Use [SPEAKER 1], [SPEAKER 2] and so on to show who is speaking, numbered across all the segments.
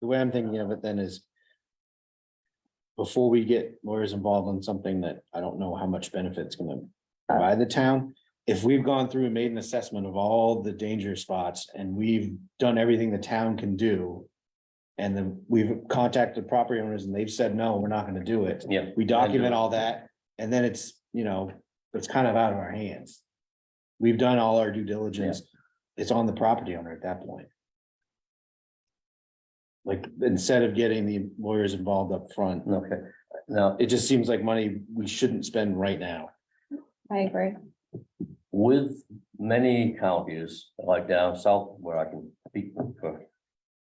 [SPEAKER 1] the way I'm thinking of it then is. Before we get lawyers involved in something that I don't know how much benefit's gonna provide the town. If we've gone through and made an assessment of all the danger spots and we've done everything the town can do. And then we've contacted property owners and they've said, no, we're not gonna do it.
[SPEAKER 2] Yeah.
[SPEAKER 1] We document all that and then it's, you know, it's kind of out of our hands. We've done all our due diligence. It's on the property owner at that point. Like, instead of getting the lawyers involved up front,
[SPEAKER 2] Okay, now,
[SPEAKER 1] it just seems like money we shouldn't spend right now.
[SPEAKER 3] I agree.
[SPEAKER 2] with many counties like down south where I can speak for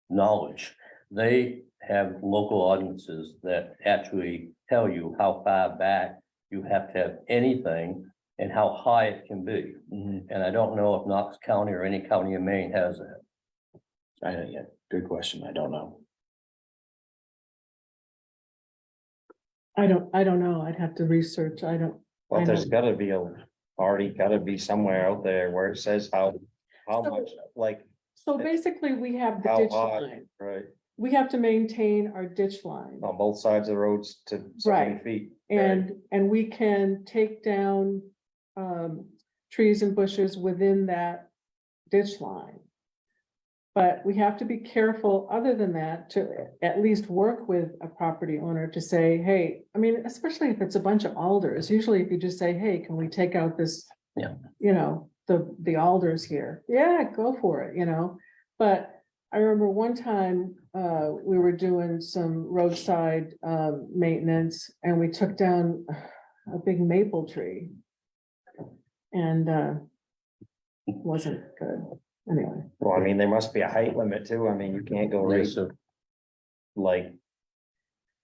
[SPEAKER 2] knowledge, they have local ordinances that actually tell you how far back you have to have anything and how high it can be.
[SPEAKER 1] Mm-hmm.
[SPEAKER 2] And I don't know if Knox County or any county in Maine has that.
[SPEAKER 1] I don't yeah, good question. I don't know.
[SPEAKER 4] I don't, I don't know. I'd have to research. I don't,
[SPEAKER 5] Well,
[SPEAKER 4] I
[SPEAKER 5] there's
[SPEAKER 4] know.
[SPEAKER 5] gotta be a, already gotta be somewhere out there where it says how, how
[SPEAKER 4] So-
[SPEAKER 5] much, like,
[SPEAKER 4] so basically we have the
[SPEAKER 5] How
[SPEAKER 4] ditch
[SPEAKER 5] high?
[SPEAKER 4] line.
[SPEAKER 5] right,
[SPEAKER 4] We have to maintain our ditch line
[SPEAKER 5] on both sides of the roads to so many
[SPEAKER 4] Right.
[SPEAKER 5] feet.
[SPEAKER 4] and, and we can take down um, trees and bushes within that ditch line. But we have to be careful, other than that, to at least work with a property owner to say, hey, I mean, especially if it's a bunch of alders, usually if you just say, hey, can we take out this?
[SPEAKER 2] Yeah.
[SPEAKER 4] You know, the, the alders here, yeah, go for it, you know, but I remember one time, uh, we were doing some roadside, um, maintenance and we took down a big maple tree. And, uh, wasn't good, anyway.
[SPEAKER 5] Well, I mean, there must be a height limit too. I mean, you can't go right,
[SPEAKER 2] So
[SPEAKER 5] like,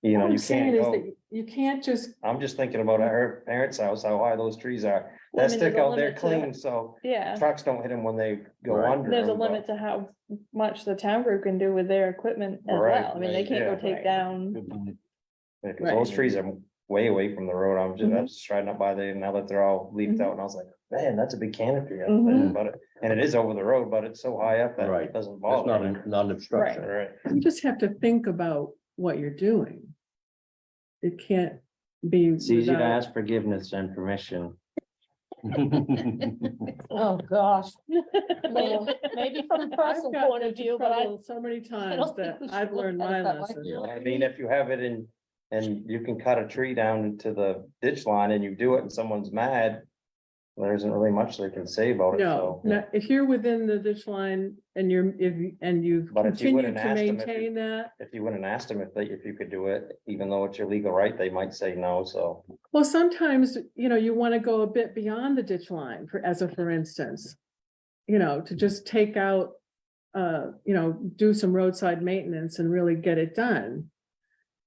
[SPEAKER 5] you know,
[SPEAKER 4] What I'm
[SPEAKER 5] you
[SPEAKER 4] saying
[SPEAKER 5] can't
[SPEAKER 4] is that
[SPEAKER 5] go.
[SPEAKER 4] you- You can't just,
[SPEAKER 5] I'm just thinking about our parents' house, how high those trees are.
[SPEAKER 3] Well, I
[SPEAKER 5] That
[SPEAKER 3] mean,
[SPEAKER 5] stick
[SPEAKER 3] there's a
[SPEAKER 5] out there
[SPEAKER 3] limit to
[SPEAKER 5] clean, so
[SPEAKER 3] Yeah,
[SPEAKER 5] trucks don't hit them when they go
[SPEAKER 2] Right.
[SPEAKER 5] under.
[SPEAKER 3] there's a
[SPEAKER 5] 'em, but-
[SPEAKER 3] limit to how much the town group can do with their equipment as
[SPEAKER 5] Right,
[SPEAKER 3] well. I mean, they
[SPEAKER 5] right,
[SPEAKER 3] can't go
[SPEAKER 5] yeah.
[SPEAKER 3] take down.
[SPEAKER 1] Good point.
[SPEAKER 5] Yeah, 'cause those
[SPEAKER 4] Right.
[SPEAKER 5] trees are way away from the road. I'm just, I was just riding up by there and now that they're all leafed
[SPEAKER 3] Mhm.
[SPEAKER 5] out and I was like, man, that's a big canopy. up there,
[SPEAKER 3] Mhm.
[SPEAKER 5] But, it- and it is over the road, but it's so high up that
[SPEAKER 2] Right.
[SPEAKER 5] it doesn't
[SPEAKER 2] that's not,
[SPEAKER 5] bother. me.
[SPEAKER 2] a- not an obstruction.
[SPEAKER 5] Right,
[SPEAKER 4] you just have to think about what you're doing. It can't be. without-
[SPEAKER 5] forgiveness than permission.
[SPEAKER 6] Oh, gosh. Maybe
[SPEAKER 3] Well,
[SPEAKER 6] maybe from a
[SPEAKER 4] I've
[SPEAKER 6] personal
[SPEAKER 4] gotten
[SPEAKER 6] point of
[SPEAKER 4] into
[SPEAKER 6] view, but I,
[SPEAKER 4] trouble So many times
[SPEAKER 6] don't
[SPEAKER 4] that
[SPEAKER 6] think we should
[SPEAKER 4] I've
[SPEAKER 6] look
[SPEAKER 4] learned
[SPEAKER 6] at it
[SPEAKER 4] my
[SPEAKER 6] that way.
[SPEAKER 4] lesson.
[SPEAKER 5] I mean, if you have it in, and you can cut a tree down to the ditch line and you do it and someone's mad. There isn't really much they can say about it,
[SPEAKER 4] No,
[SPEAKER 5] so.
[SPEAKER 4] no, if you're within the ditch line and you're, if, you- and you've
[SPEAKER 5] But if
[SPEAKER 4] continued
[SPEAKER 5] you wouldn't
[SPEAKER 4] to
[SPEAKER 5] asked 'em if you-
[SPEAKER 4] maintain that,
[SPEAKER 5] If you wouldn't ask them if they, if you could do it, even though it's your legal right, they might say no, so.
[SPEAKER 4] well, sometimes, you know, you want to go a bit beyond the ditch line for, as a, for instance. You know, to just take out, uh, you know, do some roadside maintenance and really get it done.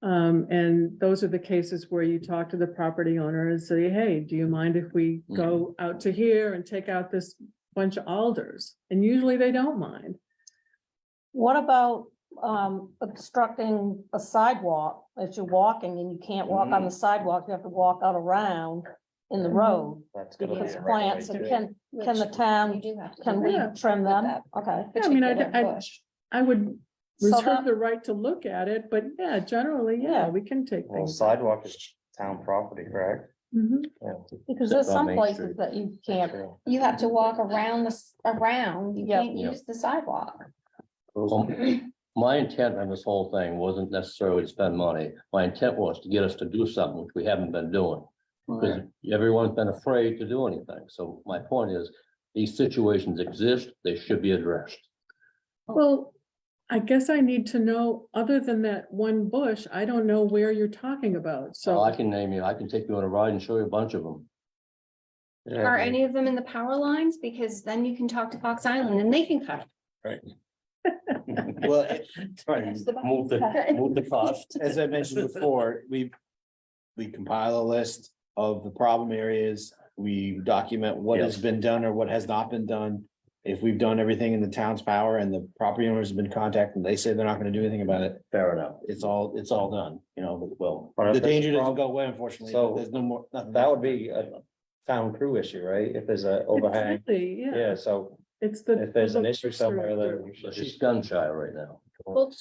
[SPEAKER 4] Um, and those are the cases where you talk to the property owner and say, hey, do you mind if we
[SPEAKER 5] Hmm.
[SPEAKER 4] go out to here and take out this bunch of alders? And usually they don't mind.
[SPEAKER 6] what about um obstructing a sidewalk as you're walking and you can't walk on the sidewalk, you have to walk out around in the
[SPEAKER 3] Mhm.
[SPEAKER 6] road.
[SPEAKER 5] That's gonna be
[SPEAKER 6] Because
[SPEAKER 5] a right
[SPEAKER 6] plants,
[SPEAKER 5] way
[SPEAKER 6] and
[SPEAKER 5] too.
[SPEAKER 6] can, can the
[SPEAKER 3] Which
[SPEAKER 6] town,
[SPEAKER 3] you do have to
[SPEAKER 6] can
[SPEAKER 3] do
[SPEAKER 6] we
[SPEAKER 4] that
[SPEAKER 6] trim
[SPEAKER 3] with
[SPEAKER 6] them?
[SPEAKER 3] that
[SPEAKER 6] Okay.
[SPEAKER 4] Yeah, I mean, I-
[SPEAKER 3] particular
[SPEAKER 4] I-
[SPEAKER 3] bush.
[SPEAKER 4] I would
[SPEAKER 6] So
[SPEAKER 4] reserve
[SPEAKER 6] that-
[SPEAKER 4] the right to look at it, but yeah, generally, yeah,
[SPEAKER 6] Yeah.
[SPEAKER 4] we can take
[SPEAKER 5] Well,
[SPEAKER 4] things.
[SPEAKER 5] sidewalk is town property, correct?
[SPEAKER 4] Mhm.
[SPEAKER 5] Yeah.
[SPEAKER 6] Because there's
[SPEAKER 2] Except on
[SPEAKER 6] some
[SPEAKER 2] Main
[SPEAKER 6] places
[SPEAKER 2] Street.
[SPEAKER 6] that you can't,
[SPEAKER 3] You have to walk around the, s- around, you
[SPEAKER 6] Yep.
[SPEAKER 3] can't
[SPEAKER 2] Yep.
[SPEAKER 3] use the sidewalk.
[SPEAKER 2] Um, My intent on this whole thing wasn't necessarily to spend money. My intent was to get us to do something which we haven't been doing. Because everyone's been afraid to do anything. So my point is, these situations exist, they should be addressed.
[SPEAKER 5] Oh.
[SPEAKER 4] Well, I guess I need to know, other than that one bush, I don't know where you're talking about,
[SPEAKER 5] Oh,
[SPEAKER 2] So I
[SPEAKER 4] so.
[SPEAKER 2] can name you, I can take you on a ride and show you a bunch of them.
[SPEAKER 3] Are any of them in the power lines? Because then you can talk to Fox Island and they can cut.
[SPEAKER 1] Well, it-
[SPEAKER 2] Move the, move the cost.
[SPEAKER 1] as I mentioned before, we, we compile a list of the problem areas. We document what has
[SPEAKER 2] Yes.
[SPEAKER 1] been done or what has not been done. If we've done everything in the town's power and the property owners have been contacted, and they say they're not gonna do anything about it,
[SPEAKER 2] Fair enough.
[SPEAKER 1] it's all, it's all done, you know, but- well.
[SPEAKER 5] But if
[SPEAKER 1] The
[SPEAKER 5] there's a
[SPEAKER 1] danger doesn't
[SPEAKER 5] prob-
[SPEAKER 1] go away unfortunately,
[SPEAKER 5] So,
[SPEAKER 1] but there's no more. nothing
[SPEAKER 5] That
[SPEAKER 1] else.
[SPEAKER 5] would be a town crew issue, right? If there's a overhang,
[SPEAKER 4] Exactly, yeah,
[SPEAKER 5] yeah, so
[SPEAKER 4] it's the.
[SPEAKER 5] if there's an
[SPEAKER 4] the
[SPEAKER 5] issue
[SPEAKER 4] first or
[SPEAKER 5] somewhere,
[SPEAKER 4] third.
[SPEAKER 5] then we should
[SPEAKER 2] But
[SPEAKER 5] just
[SPEAKER 2] she's gun shy right now.
[SPEAKER 6] well,